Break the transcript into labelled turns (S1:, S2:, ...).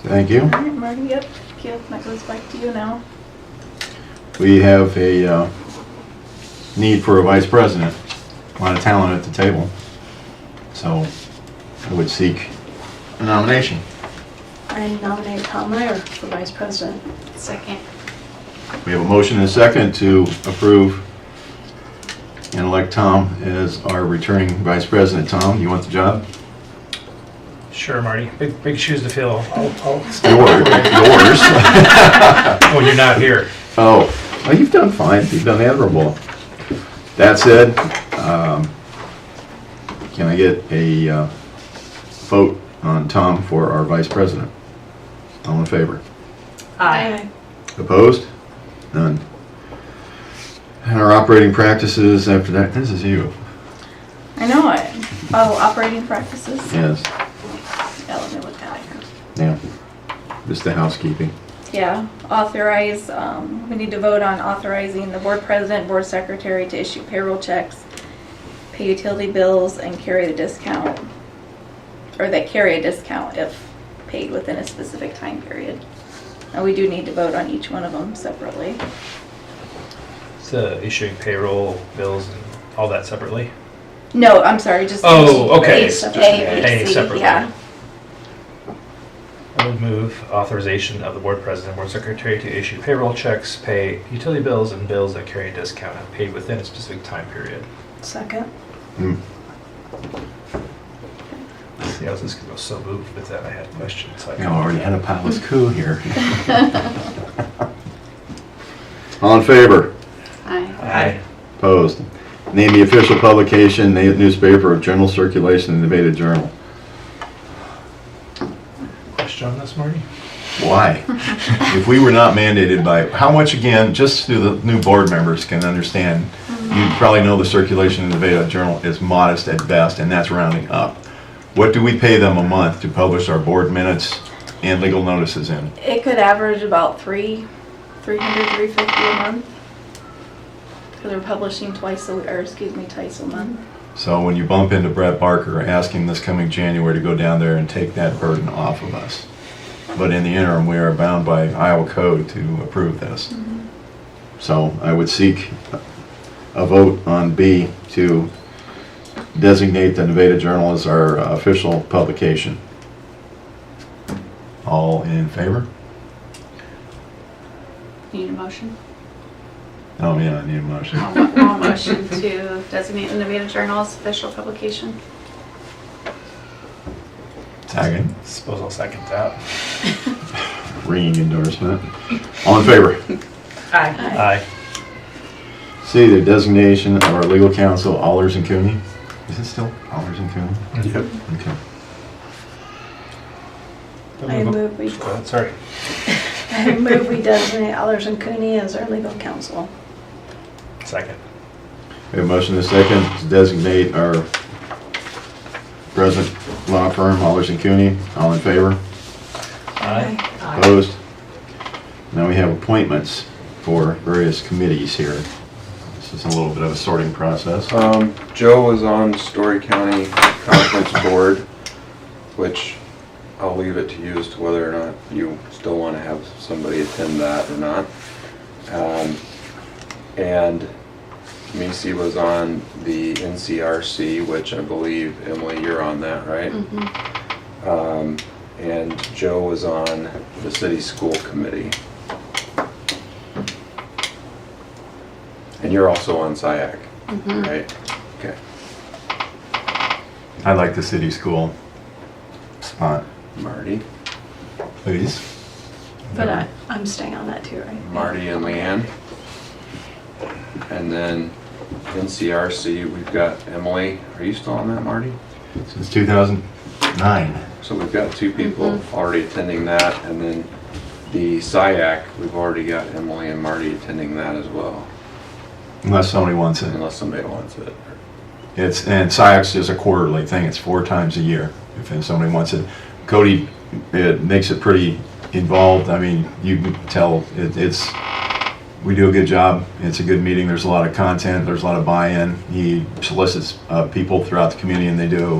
S1: Thank you.
S2: All right, Marty, yep, Gil, that goes back to you now.
S1: We have a uh, need for a vice president, a lot of talent at the table. So I would seek a nomination.
S2: I nominate Tom Meyer for vice president.
S3: Second.
S1: We have a motion and a second to approve and elect Tom as our returning vice president. Tom, you want the job?
S4: Sure, Marty. Big, big shoes to fill
S1: Yours. Yours.
S4: when you're not here.
S1: Oh, well, you've done fine. You've done admirable. That said, um, can I get a uh, vote on Tom for our vice president? All in favor? Opposed? None. And our operating practices after that, this is you,
S2: I know it. Oh, operating practices.
S1: yes,
S2: Yeah, let me look at it.
S1: yeah. Just the housekeeping.
S2: Yeah, authorize, um, we need to vote on authorizing the board president, board secretary to issue payroll checks, pay utility bills, and carry the discount, or that carry a discount if paid within a specific time period. And we do need to vote on each one of them separately.
S4: So issuing payroll, bills, and all that separately.
S2: No, I'm sorry, just.
S4: Oh, okay.
S2: A,
S4: Just
S2: A,
S4: pay
S2: B, C,
S4: separately.
S2: yeah.
S4: I would move authorization of the board president, board secretary to issue payroll checks, pay utility bills, and bills that carry a discount if paid within a specific time period.
S2: Second.
S1: Hmm.
S4: See, I was just gonna go so moved, but then I had questions. so I-
S1: You know, I already had a palace coup here. All in favor?
S3: Aye.
S4: Aye.
S1: Opposed. Name the official publication, na- newspaper of general circulation in the Beta Journal.
S4: Question on this, Marty?
S1: Why? If we were not mandated by, how much again, just so the new board members can understand, you probably know the circulation in the Beta Journal is modest at best, and that's rounding up. What do we pay them a month to publish our board minutes and legal notices in?
S2: It could average about three, three hundred, three fifty a month. Because we're publishing twice a, w- or excuse me, twice a month.
S1: So when you bump into Brett Barker, ask him this coming January to go down there and take that burden off of us. But in the interim, we are bound by Iowa code to approve this. So I would seek a vote on B to designate the Nevada Journal as our official publication. All in favor?
S3: Need a motion?
S1: Oh, yeah, I need a motion.
S3: I'll mo- I'll motion to designate the Nevada Journal as official publication.
S1: Second,
S4: Suppose I'll second that.
S1: ringing endorsement. All in favor?
S5: Aye.
S4: Aye.
S1: See the designation of our legal counsel, Allers and Cooney. Is it still Allers and Cooney?
S4: Yep.
S1: Okay.
S2: I move we,
S4: Go ahead, Sorry.
S2: I move we designate Allers and Cooney as our legal counsel.
S4: Second.
S1: We have a motion and a second to designate our present law firm, Allers and Cooney. All in favor?
S4: Aye.
S1: Opposed? Now we have appointments for various committees here. This is a little bit of a sorting process.
S6: Um, Joe was on Story County Conference Board, which I'll leave it to you as to whether or not you still want to have somebody attend that or not. Um, And Macy was on the NCRC, which I believe, Emily, you're on that, right? Um, And Joe was on the city school committee. And you're also on SiAC, right? Okay.
S1: I like the city school spot,
S6: Marty,
S1: please.
S7: But I, I'm staying on that too, right?
S6: Marty and Leanne. And then NCRC, we've got Emily. Are you still on that, Marty?
S1: Since 2009.
S6: So we've got two people already attending that, and then the SiAC, we've already got Emily and Marty attending that as well,
S1: Unless somebody wants it.
S6: unless somebody wants it.
S1: It's, and SiACS is a quarterly thing, it's four times a year, if somebody wants it. Cody, it makes it pretty involved, I mean, you can tell, it- it's, we do a good job, it's a good meeting, there's a lot of content, there's a lot of buy-in. He solicits uh, people throughout the community, and they do